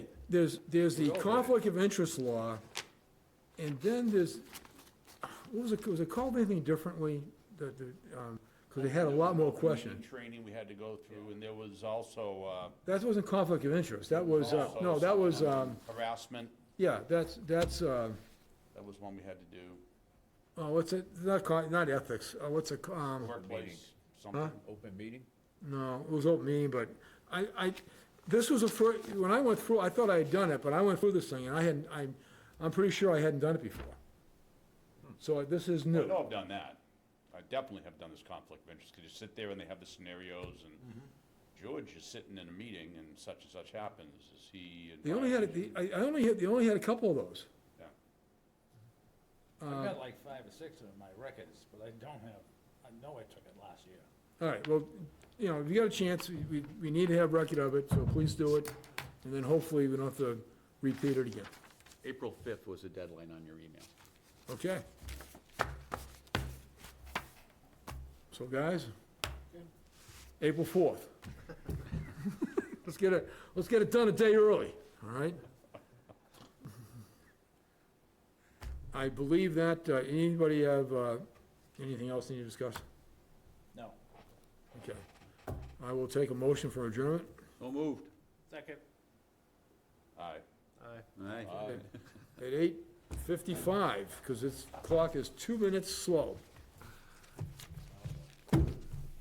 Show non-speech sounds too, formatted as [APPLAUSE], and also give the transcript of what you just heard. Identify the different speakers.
Speaker 1: there's, there's the conflict of interest law, and then there's, what was it, was it called anything differently? The, the, um 'cause because they had a lot more questions.
Speaker 2: Training we had to go through, and there was also uh,
Speaker 1: That wasn't conflict of interest, that was, uh, no, that was, um,
Speaker 2: uh, harassment,
Speaker 1: yeah, that's, that's, uh,
Speaker 2: that was one we had to do,
Speaker 1: oh, what's it, not, co- not ethics, uh, what's it, ca- um,
Speaker 2: workplace, something.
Speaker 3: Open meeting?
Speaker 1: No, it was open meeting, but I, I, this was a fir, when I went through, I thought I had done it, but I went through this thing and I hadn't, I'm, I'm pretty sure I hadn't done it before. So this is
Speaker 2: I
Speaker 1: new.
Speaker 2: know I've done that. I definitely have done this conflict of interest, because you sit there and they have the scenarios, and
Speaker 1: Mm-hmm.
Speaker 2: George is sitting in a meeting, and such and such happens, is he?
Speaker 1: They only had, the- I, I only had, they only had a couple of those.
Speaker 2: Yeah.
Speaker 4: I've got like five or six of them in my records, but I don't have, I know I took it last year.
Speaker 1: All right, well, you know, if you got a chance, we- we, we need to have record of it, so please do it. And then hopefully we don't have to repeat it again.
Speaker 3: April 5th was the deadline on your email.
Speaker 1: Okay. So guys, April fourth. [LAUGHS] Let's get it, let's get it done a day early, all right? I believe that, uh, anybody have, uh, anything else need to discuss?
Speaker 4: No.
Speaker 1: Okay. I will take a motion for adjournment.
Speaker 3: So moved.
Speaker 4: Second.
Speaker 2: Aye.
Speaker 3: Aye.
Speaker 1: At eight fifty-five, because this clock is two minutes slow.